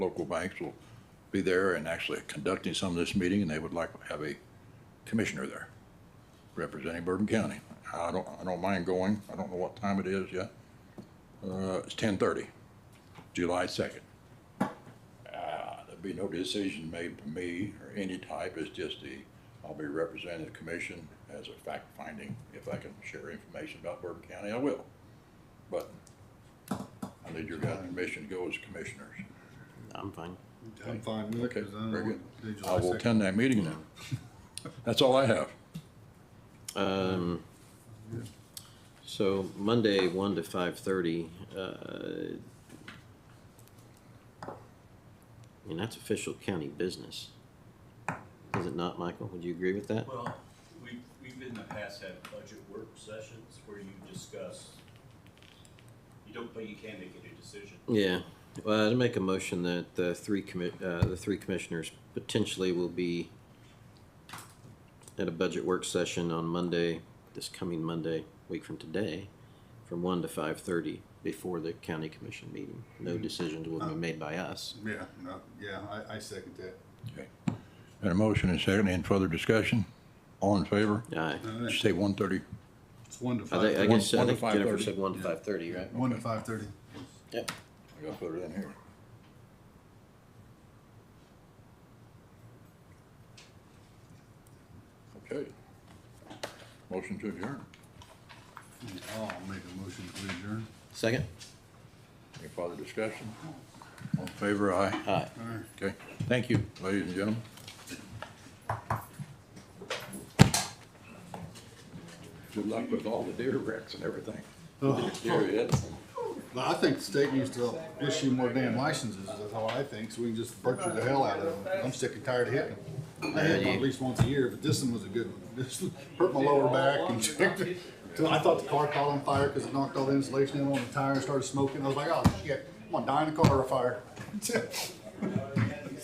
local banks will be there and actually conducting some of this meeting, and they would like to have a commissioner there representing Bourbon County. I don't, I don't mind going. I don't know what time it is yet. Uh, it's ten thirty, July second. Uh, there'll be no decision made by me or any type. It's just the, I'll be representing the commission as a fact finding. If I can share information about Bourbon County, I will. But I need your guys' permission to go as commissioners. I'm fine. I'm fine with it. Okay, 'cause I don't very good. want to do I July will 2nd. attend that meeting then. That's all I have. Um, so Monday, one to five thirty, uh, I mean, that's official county business. Is it not, Michael? Would you agree with that? Well, we've, we've in the past had budget work sessions where you discuss, you don't, but you can make any decision. Yeah, well, I'd make a motion that the three commit, uh, the three commissioners potentially will be at a budget work session on Monday, this coming Monday, week from today, from one to five thirty before the county commission meeting. No decisions will be made by us. Yeah, no, yeah, I, I second that. And a motion and second, any further discussion? All in favor? Aye. No, Did you that- say one thirty? It's one to I think, I five, guess, I One- one to think Jennifer 5:30. said one to five thirty, right? one to five thirty. Yep. I gotta put it in here. Okay. Motion to adjourn. I'll make a motion to adjourn. Second? Any further discussion? All in favor, aye. Aye. All right. Okay, thank you, ladies and gentlemen. Good luck with all the deer wrecks and everything. Deer hits. But I think the state needs to issue more damn licenses, is how I think, so we can just butcher the hell out of them. I'm sick and tired of hitting them. I hit them at least once a year, but this one was a good one. This hurt my lower back and checked it. So I thought the car caught on fire because it knocked all the insulation in on the tire and started smoking. I was like, oh shit, I'm gonna die in a car of fire.